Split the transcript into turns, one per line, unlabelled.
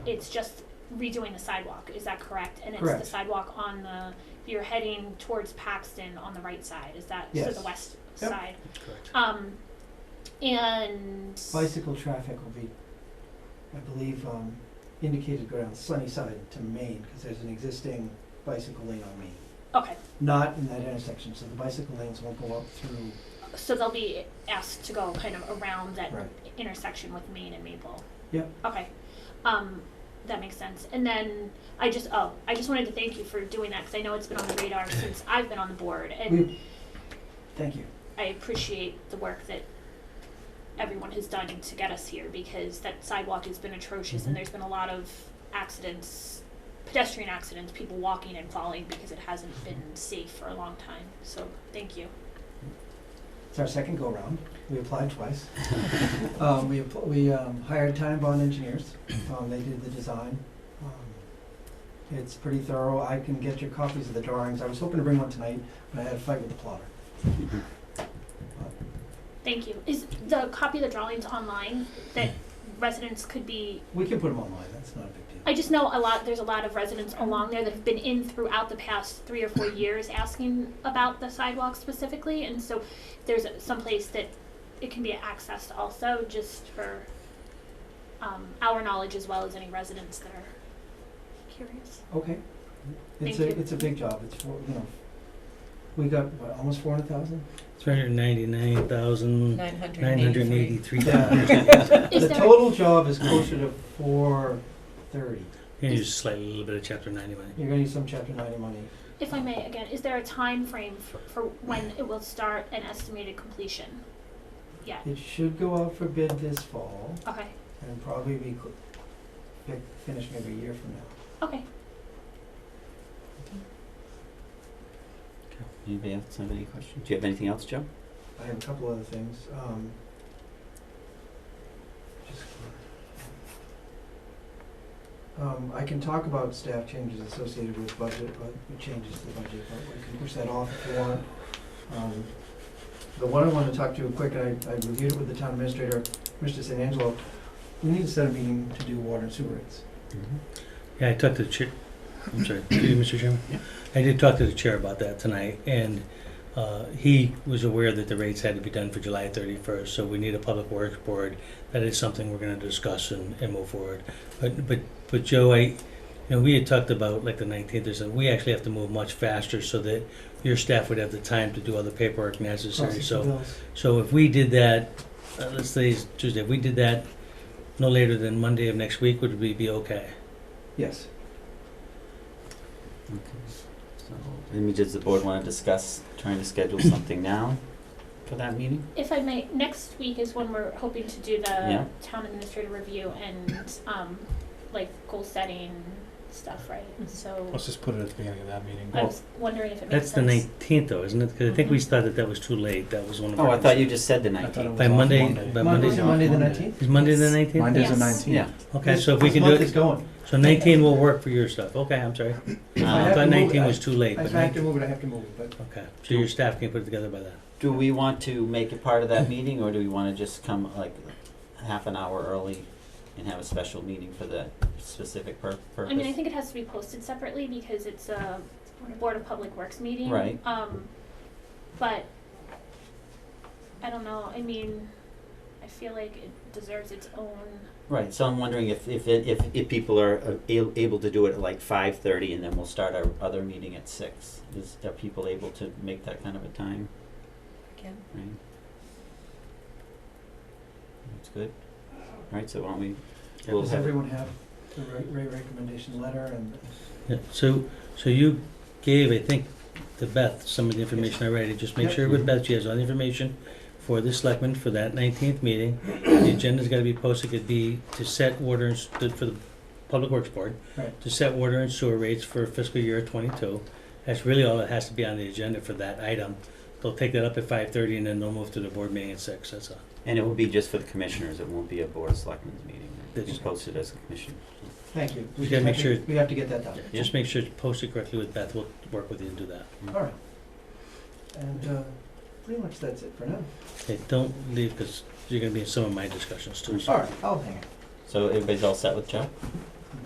it's just redoing the sidewalk, is that correct? And it's the
Correct.
sidewalk on the, you're heading towards Paxton on the right side, is that, so the
Yes.
west
Yep.
side?
Correct.
Um, and,
Bicycle traffic will be, I believe, um, indicated go down Sunnyside to Main, because there's an existing bicycle lane on Main.
okay,
Not in that intersection, so the bicycle lanes won't go up through,
so they'll be asked to go kind of around that
right,
intersection with Maine and Maple.
Yep.
Okay, um, that makes sense. And then I just, oh, I just wanted to thank you for doing that, because I know it's been on the radar since I've been on the board, and
We- thank you.
I appreciate the work that everyone has done to get us here because that sidewalk has been atrocious
Mhm.
and there's been a lot of accidents, pedestrian accidents, people walking and falling because it hasn't been safe for a long time. So thank you.
It's our second go-round. We applied twice. Um, we, app- we, um, hired time bond engineers. Um, they did the design. Um, It's pretty thorough. I can get your copies of the drawings. I was hoping to bring one tonight, but I had a fight with the plotter.
Thank you. Is the copy of the drawings online that residents could be?
We can put them online. That's not a big deal.
I just know a lot. There's a lot of residents along there that have been in throughout the past three or four years asking about the sidewalk specifically, and so if there's some place that it can be accessed also, just for um, our knowledge as well as any residents that are curious.
Okay. It's
Thank
a,
you.
it's a big job. It's four, you know, we got, what, almost four hundred thousand?
Three hundred ninety-nine thousand,
Nine hundred
nine hundred
and eighty-three.
eighty-three
Yeah.
dollars.
Is
The
there-
total job is closer to four thirty.
And you just slightly, a little bit of chapter ninety money.
You're gonna need some chapter ninety money.
If I may, again, is there a time frame for, for when it will start and estimated completion? Yeah.
It should go out for bid this fall.
Okay.
And probably be cl- fi- finished maybe a year from now.
Okay.
Anybody else have any questions? Do you have anything else, Joe?
I have a couple other things, um. just- Um, I can talk about staff changes associated with budget, but it changes to the budget, but we can push that off if you want. Um, the one I wanna talk to quick, I, I reviewed it with the town administrator, Mr. San Angelo, we need to set a meeting to do water and sewer rates.
Yeah, I talked to the chair, I'm sorry, to you, Mr. Chairman?
Yeah.
I did talk to the chair about that tonight, and uh, he was aware that the rates had to be done for July 31st, so we need a public works board. That is something we're gonna discuss and, and move forward. But, but, but Joe, I, you know, we had talked about like the 19th or something, we actually have to move much faster so that your staff would have the time to do all the paperwork necessary,
Process
Oh, so.
of bills.
So if we did that, uh, let's say it's Tuesday, if we did that no later than Monday of next week, would we be okay?
Yes,
So, images the board want to discuss trying to schedule something now for that meeting?
If I may, next week is when we're hoping to do the
Yeah.
town administrator review and um, like goal setting stuff, right? And so
Let's just put it at the beginning of that meeting.
I was wondering if it makes
That's the
sense.
nineteenth though, isn't it? Because I think we
Mhm.
thought that that was too late. That was one of our.
Oh, I thought you just said the
I thought it
nineteenth.
was
By
off
Monday-
Monday.
by
Monday,
Monday's
Monday the nineteenth?
Is Monday the nineteenth?
Monday's the
Yes.
nineteenth.
Yeah. Uh,
Okay, so if we can do
This month is
it,
going.
so nineteen will work for your stuff. Okay, I'm sorry.
I
I
have
Um,
to
thought
move it.
nineteen was too late,
I-
but
If I have to
nineteen,
move it, I have to move it, but
okay. So your staff can put it together by then.
do we want to make it part of that meeting, or do we want to just come like half an hour early and have a special meeting for that specific pur- purpose?
I mean, I think it has to be posted separately because it's a board of public works meeting.
Right.
Um, but I don't know. I mean, I feel like it deserves its own.
Right, so I'm wondering if, if, it- if, if people are uh, a- able to do it at like five thirty and then we'll start our other meeting at six. Is, are people able to make that kind of a time?
Again.
Right. That's good. Alright, so why don't we, we'll
does
have,
everyone have the re- re- recommendation letter and?
Yeah, so, so you gave, I think, to Beth some of the information already, just make
Yep.
sure with Beth, she has all the information for the selectmen for that nineteenth meeting. The agenda's gotta be posted, could be to set water and, s- to- for the Public Works Board,
Right.
to set water and sewer rates for fiscal year twenty-two. That's really all that has to be on the agenda for that item. They'll take that up at five thirty and then they'll move to the board meeting at six, that's all.
and it will be just for the commissioners, it won't be a board of selectmen's meeting.
That's
It's posted as a commission.
Thank you.
We gotta make
have to-
sure-
We have to get that done.
Just make sure it's posted correctly with Beth, we'll work with you and do that.
All right. And, uh, pretty much that's it for now.
Okay, don't leave, cause you're gonna be in some of my discussions too, so.
All right, I'll hang it.
So everybody's all set with Joe?